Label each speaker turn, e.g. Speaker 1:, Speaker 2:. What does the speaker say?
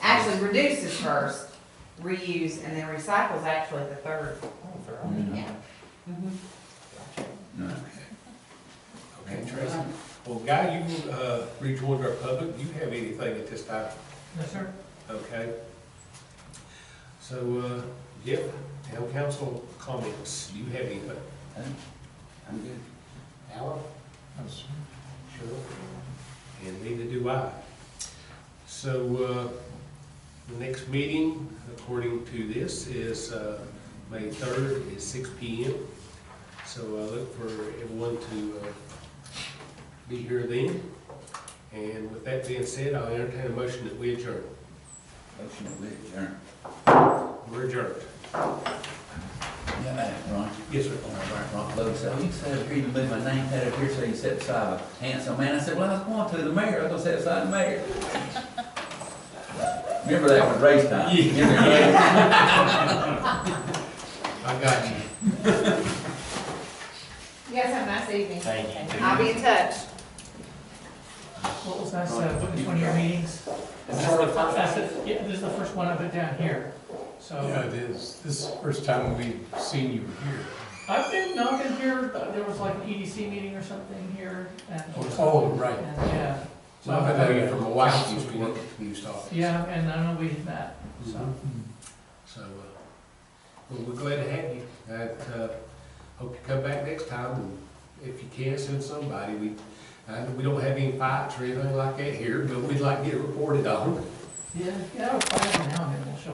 Speaker 1: actually reduce is first, reuse, and then recycle is actually the third. Yeah. Mm-hmm.
Speaker 2: No.
Speaker 3: Okay, Tracy. Well, Guy, you uh, rejoined our public. Do you have anything at this time?
Speaker 4: Yes, sir.
Speaker 3: Okay. So, uh, yeah, town council comments. Do you have anything?
Speaker 2: I'm good.
Speaker 3: Alan? Sure. And neither do I. So, uh, the next meeting, according to this, is, uh, May third at six P M. So I look for everyone to, uh, be here then. And with that being said, I'll entertain a motion that we adjourn.
Speaker 2: Motion to adjourn.
Speaker 3: We're adjourned.
Speaker 2: Yeah, man, Ron.
Speaker 3: Yes, sir.
Speaker 2: All right, Ron Lowe said, you said up here, you moved my name tag up here, so you set aside a handsome man. I said, well, I was going to the mayor, I was gonna set aside the mayor. Remember that was race time? Yeah.
Speaker 3: I got you.
Speaker 1: You guys have a nice evening.
Speaker 2: Thank
Speaker 1: I'll be in touch.
Speaker 4: What was that, uh, what was one of your meetings? This is the first, that's it. yeah, this is the first one I put down here,
Speaker 5: Yeah,
Speaker 4: so.
Speaker 5: it is. This is the first time we've seen you here.
Speaker 4: I've been knocking here, uh, there was like an EDC meeting or something here, and,
Speaker 5: Oh, right.
Speaker 4: and, yeah.
Speaker 3: So I've known you from a while since we
Speaker 5: Council.
Speaker 3: worked at News Talk.
Speaker 4: Yeah, and I know we had met, so.
Speaker 5: Mm-hmm.
Speaker 3: So, uh, well, we're glad to have you. I, uh, hope you come back next time, and if you can, send somebody. We, I, know we don't have any fights or anything like that here, but we'd like to get reported on.
Speaker 4: Yeah, yeah, I was fighting now,